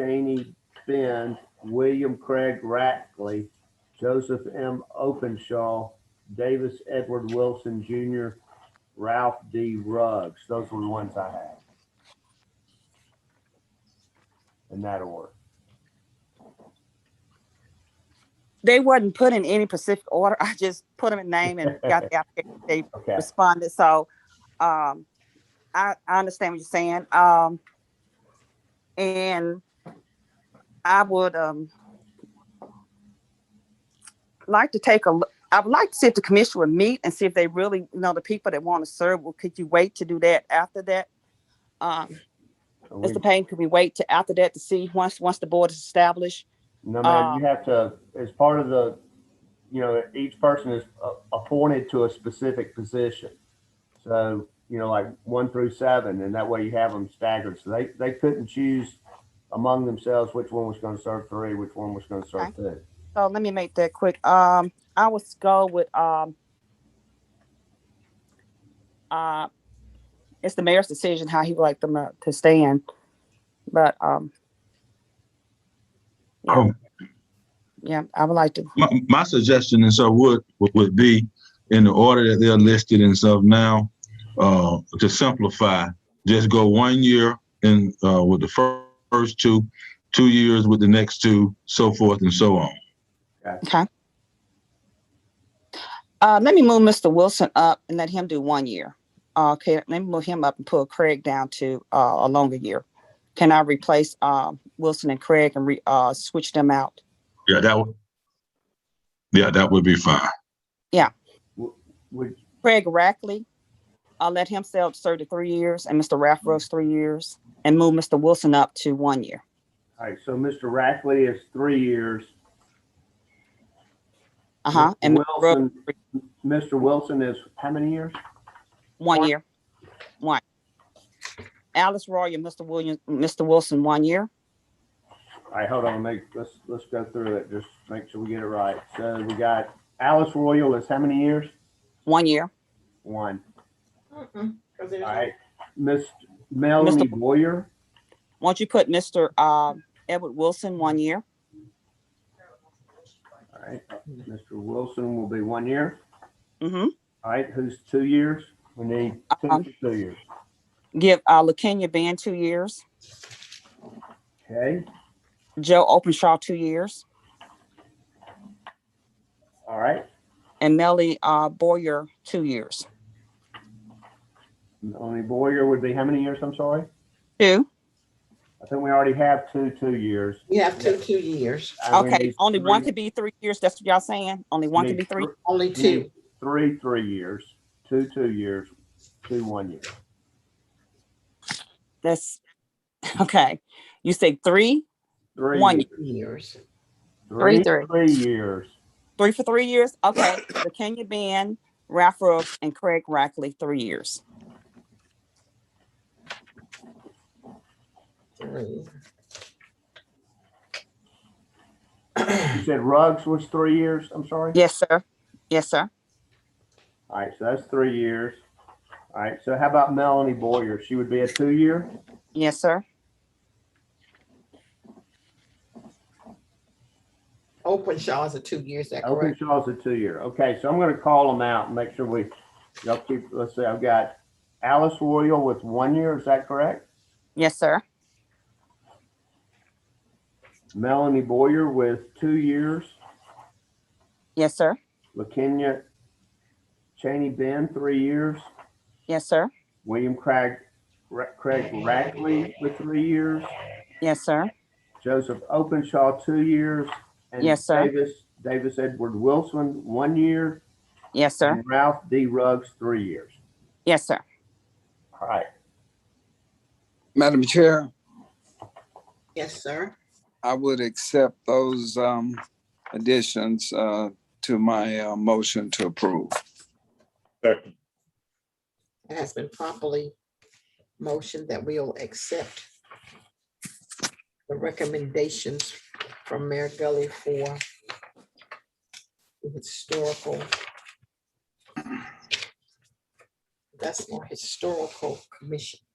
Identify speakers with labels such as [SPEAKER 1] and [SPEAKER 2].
[SPEAKER 1] Cheney Finn, William Craig Rackley, Joseph M. Openshaw, Davis Edward Wilson Jr., Ralph D. Ruggs. Those were the ones I had. In that order.
[SPEAKER 2] They wasn't put in any specific order. I just put them in name and got the application. They
[SPEAKER 1] Okay.
[SPEAKER 2] responded. So um, I, I understand what you're saying. Um, and I would um, like to take a look. I would like to see if the commission would meet and see if they really you know the people that want to serve. Well, could you wait to do that after that? Um,
[SPEAKER 1] Are we-
[SPEAKER 2] Mr. Payne, could we wait to after that to see once once the board is established?
[SPEAKER 1] No, man,
[SPEAKER 2] Um,
[SPEAKER 1] you have to, as part of the, you know, each person is uh, appointed to a specific position. So, you know, like one through seven, and that way you have them staggered. So they, they couldn't choose among themselves which one was going to serve three, which one was going to serve two.
[SPEAKER 2] So let me make that quick. Um, I would go with um, uh, it's the mayor's decision how he would like them uh, to stand, but um,
[SPEAKER 3] Oh,
[SPEAKER 2] yeah, I would like to.
[SPEAKER 3] my, my suggestion and so would, would be in the order that they're listed and stuff now, uh, to simplify, just go one year in, uh, with the fir- first two, two years with the next two, so forth and so on.
[SPEAKER 2] Uh, let me move Mr. Wilson up and let him do one year. Uh, okay, let me move him up and pull Craig down to uh, a longer year. Can I replace um, Wilson and Craig and re, uh, switch them out?
[SPEAKER 3] Yeah, that would, yeah, that would be fine.
[SPEAKER 1] Would,
[SPEAKER 2] Craig Rackley, I'll let him sell serve to three years, and Mr. Ralph Rose three years, and move Mr. Wilson up to one year.
[SPEAKER 1] all right, so Mr. Rackley is three years.
[SPEAKER 2] Uh huh. And
[SPEAKER 1] Mr.
[SPEAKER 2] Mr. Rose,
[SPEAKER 1] Wilson, Mr. Wilson is how many years?
[SPEAKER 2] one year, one. Alice Roy and Mr. Williams, Mr. Wilson, one year.
[SPEAKER 1] All right, hold on, make, let's, let's go through it, just make sure we get it right. So we got Alice Royal is how many years?
[SPEAKER 2] One year.
[SPEAKER 1] One.
[SPEAKER 4] Because there's
[SPEAKER 1] All
[SPEAKER 4] no
[SPEAKER 1] right, Miss Melanie
[SPEAKER 2] Mr.
[SPEAKER 1] Boyer,
[SPEAKER 2] Won't you put Mr. Uh, Edward Wilson one year?
[SPEAKER 1] all right, Mr. Wilson will be one year,
[SPEAKER 2] Mm-hmm.
[SPEAKER 1] all right, who's two years? We need two,
[SPEAKER 2] Um.
[SPEAKER 1] for two years,
[SPEAKER 2] give uh, LaKenya Band two years,
[SPEAKER 1] okay?
[SPEAKER 2] Joe Openshaw two years,
[SPEAKER 1] All right,
[SPEAKER 2] and Melly uh, Boyer two years.
[SPEAKER 1] Melanie Boyer would be how many years, I'm sorry?
[SPEAKER 2] Two.
[SPEAKER 1] I think we already have two, two years.
[SPEAKER 4] You have two, two years,
[SPEAKER 1] Uh, we
[SPEAKER 2] Okay,
[SPEAKER 1] need
[SPEAKER 2] only one
[SPEAKER 1] three-
[SPEAKER 2] could be three years. That's what y'all saying. Only one could
[SPEAKER 1] need
[SPEAKER 2] be three.
[SPEAKER 4] only two.
[SPEAKER 1] Three, three years, two, two years, two, one year.
[SPEAKER 2] That's okay. You say three,
[SPEAKER 1] Three,
[SPEAKER 2] One year.
[SPEAKER 4] Years.
[SPEAKER 1] three,
[SPEAKER 2] Three,
[SPEAKER 1] three years.
[SPEAKER 2] three for three years. Okay, LaKenya Band, Ralph Rooks, and Craig Rackley three years.
[SPEAKER 4] Three.
[SPEAKER 1] You said Ruggs was three years, I'm sorry?
[SPEAKER 2] Yes, sir. Yes, sir.
[SPEAKER 1] All right, so that's three years. All right, so how about Melanie Boyer? She would be a two-year?
[SPEAKER 2] Yes, sir.
[SPEAKER 4] Open Shaw's a two years, is that correct?
[SPEAKER 1] Openshaw's a two-year. Okay, so I'm gonna call them out and make sure we, y'all keep, let's see, I've got Alice Royal with one year, is that correct?
[SPEAKER 2] Yes, sir.
[SPEAKER 1] Melanie Boyer with two years,
[SPEAKER 2] Yes, sir.
[SPEAKER 1] LaKenya Cheney Ben, three years,
[SPEAKER 2] Yes, sir.
[SPEAKER 1] William Craig, Ra- Craig Rackley with three years,
[SPEAKER 2] Yes, sir.
[SPEAKER 1] Joseph Openshaw, two years, and
[SPEAKER 2] Yes, sir.
[SPEAKER 1] Davis, Davis Edward Wilson, one year,
[SPEAKER 2] Yes, sir.
[SPEAKER 1] and Ralph D. Ruggs, three years.
[SPEAKER 2] Yes, sir.
[SPEAKER 1] All right,
[SPEAKER 5] Madam Chair,
[SPEAKER 4] Yes, sir.
[SPEAKER 5] I would accept those um, additions uh, to my uh, motion to approve.
[SPEAKER 4] It has been properly motioned that we'll accept the recommendations from Mayor Gully for the historical. That's more historical commission.